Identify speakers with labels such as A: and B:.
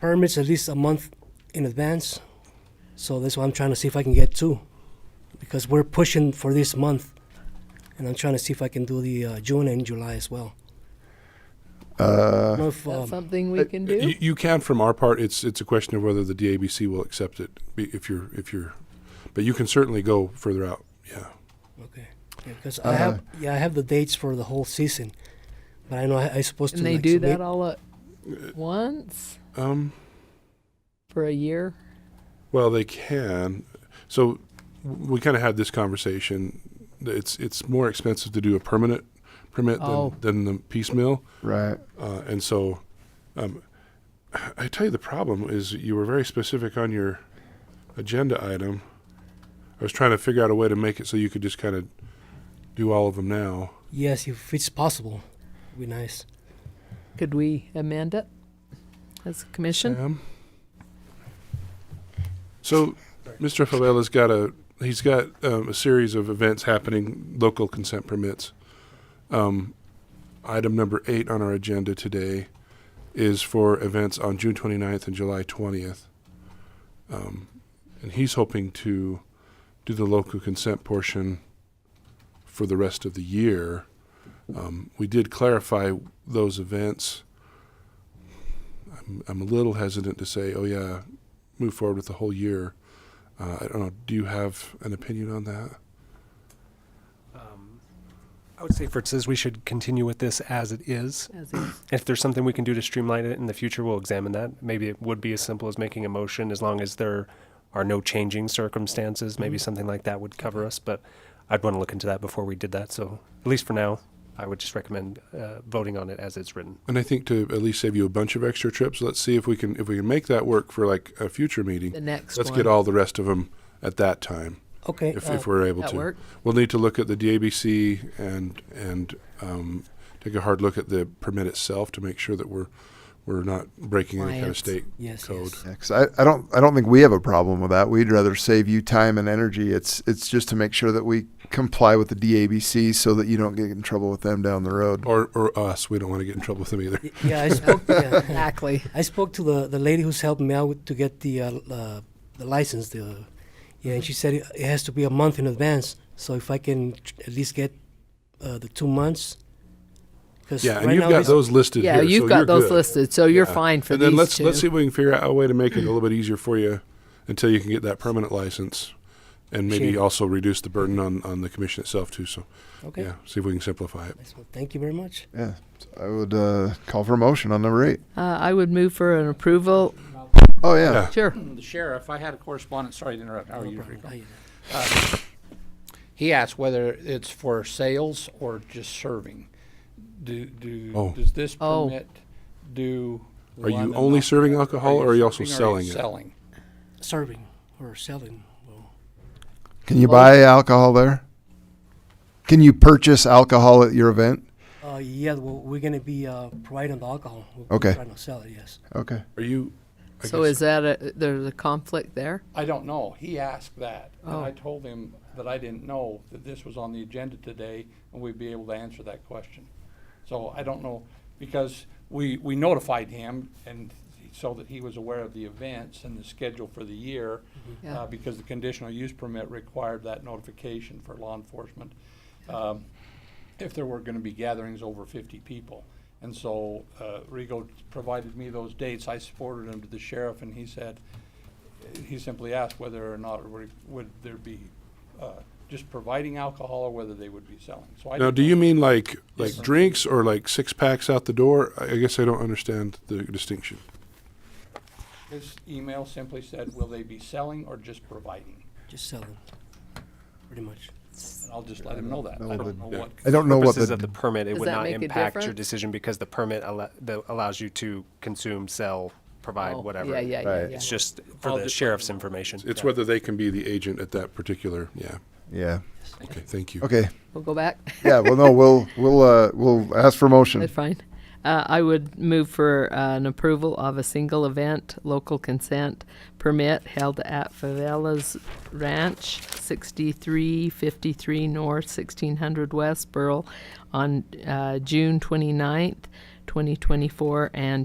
A: permits at least a month in advance. So that's why I'm trying to see if I can get two, because we're pushing for this month, and I'm trying to see if I can do the uh, June and July as well. Uh, if,
B: That's
A: um,
B: something we can do.
C: Uh, You, you can from our part. It's it's a question of whether the DABC will accept it be- if you're if you're, but you can certainly go further out. Yeah.
A: okay, yeah, because I have
C: Uh-huh.
A: yeah I have the dates for the whole season, but I know I, I supposed
B: and
A: to.
B: they
A: like,
B: do
A: submit-
B: that all at
C: Uh,
B: once
C: Um.
B: for a year.
C: Well, they can. So w- we kind of had this conversation. It's it's more expensive to do a permanent permit
B: Oh.
C: than, than the piecemeal,
D: Right.
C: uh, and so um, I tell you the problem is you were very specific on your agenda item. I was trying to figure out a way to make it so you could just kind of do all of them now.
A: Yes, if it's possible, it'd be nice.
B: Could we amend it as a commission?
C: Sam? So, Mr. Favela's got a he's got um, a series of events happening, local consent permits. Um, item number eight on our agenda today is for events on June 29th and July 20th, um, and he's hoping to do the local consent portion for the rest of the year. Um, we did clarify those events. I'm, I'm a little hesitant to say, oh yeah, move forward with the whole year. Uh, I don't know. Do you have an opinion on that?
E: Um, I would say for it says we should continue with this as it is.
B: As is.
E: If there's something we can do to streamline it in the future, we'll examine that. Maybe it would be as simple as making a motion, as long as there are no changing circumstances.
B: Mm-hmm.
E: Maybe something like that would cover us. But I'd want to look into that before we did that. So at least for now, I would just recommend uh, voting on it as it's written.
C: And I think to at least save you a bunch of extra trips, let's see if we can if we can make that work for like a future
B: The
C: meeting.
B: next
C: Let's
B: one.
C: get all the rest of them at that time
A: Okay,
C: if,
A: uh,
C: if we're able
B: that
C: to.
B: work?
C: We'll need to look at the DABC and and um, take a hard look at the permit itself to make sure that we're we're not breaking any kind of
B: Compliance.
C: state
A: yes,
C: code.
A: yes.
D: Yeah, 'cause I, I don't I don't think we have a problem with that. We'd rather save you time and energy. It's it's just to make sure that we comply with the DABC so that you don't get in trouble with them down the road.
C: Or, or us, we don't want to get in trouble with them either.
A: Y- Yeah, I spoke. yeah.
B: Exactly.
A: I spoke to the, the lady who's helping me out with, to get the uh, l- uh, the license. The yeah, and she said it, it has to be a month in advance. So if I can tr- at least get uh, the two months, because
C: Yeah, and you've got those listed
B: Yeah,
C: here.
B: you've
C: so you're
B: got those
C: good.
B: listed, so you're
C: Yeah.
B: fine for
C: and
B: these
C: then let's
B: two.
C: let's see if we can figure out a way to make it a little bit easier for you until you can get that permanent license, and maybe
A: Sure.
C: also reduce the burden on on the commission itself too. So
A: Okay.
C: yeah, see if we can simplify it.
A: Nice one. Thank you very much.
D: Yeah. So I would uh, call for a motion on number eight.
B: Uh, I would move for an approval.
D: Oh yeah.
C: Yeah.
B: Sure.
F: The sheriff, I had a correspondent, sorry to interrupt, how are
A: No
F: you?
A: problem. How
F: Rico?
A: you doing?
F: He asked whether it's for sales or just serving. Do,
C: Oh.
F: do, does this
B: Oh.
F: permit do?
C: Are you
F: one and
C: only
F: not-
C: serving alcohol, or are you also
F: serving or are you
C: selling it?
F: Selling.
A: Serving or selling? Well,
D: Can you buy alcohol there? Can you purchase alcohol at your event?
A: uh, yeah, well, we're gonna be uh, providing the alcohol. We're we're
D: Okay.
A: Trying to sell it. Yes.
D: Okay.
C: Are you? I
B: So
C: guess-
B: is that a, there's a conflict there?
F: I don't know. He asked that. And
B: Oh.
F: I told him that I didn't know that this was on the agenda today and we'd be able to answer that question. So I don't know, because we, we notified him and so that he was aware of the events and the schedule for the year.
B: Mm-hmm. Yeah.
F: uh, because the conditional use permit required that notification for law enforcement. um, If there were gonna be gatherings over fifty people. And so, uh, Rego provided me those dates. I supported him to the sheriff and he said, he simply asked whether or not would- would there be, uh, just providing alcohol or whether they would be selling. So I
C: Now,
F: didn't
C: do
F: know.
C: you mean like like
F: Yes.
C: drinks or like six packs out the door? I I guess I don't understand the distinction.
F: His email simply said, will they be selling or just providing?
A: Just selling. Pretty much.
F: And I'll just let him know that.
D: know
F: I
D: the-
F: don't know
C: Yeah.
F: what.
D: I don't know what
E: purposes
D: the
E: of the permit, it
B: Does
E: would
B: that
E: not
B: make a
E: impact your
B: difference?
E: decision because the permit al- the, allows you to consume, sell, provide,
B: Oh,
E: whatever.
B: Yeah, yeah, yeah,
D: Right.
B: yeah.
E: It's just for
F: I'll
E: the
F: just-
E: sheriff's information.
C: It's
E: Yeah.
C: whether they can be the agent at that particular. Yeah.
D: yeah.
C: Okay. Thank you.
D: Okay.
B: We'll go back.
D: Yeah. Well, no. We'll we'll uh, we'll ask for motion.
B: That's fine. Uh, I would move for uh, an approval of a single event local consent permit held at Favela's Ranch, 6353 North, 1600 West, Burl, on uh, June 29th, 2024, and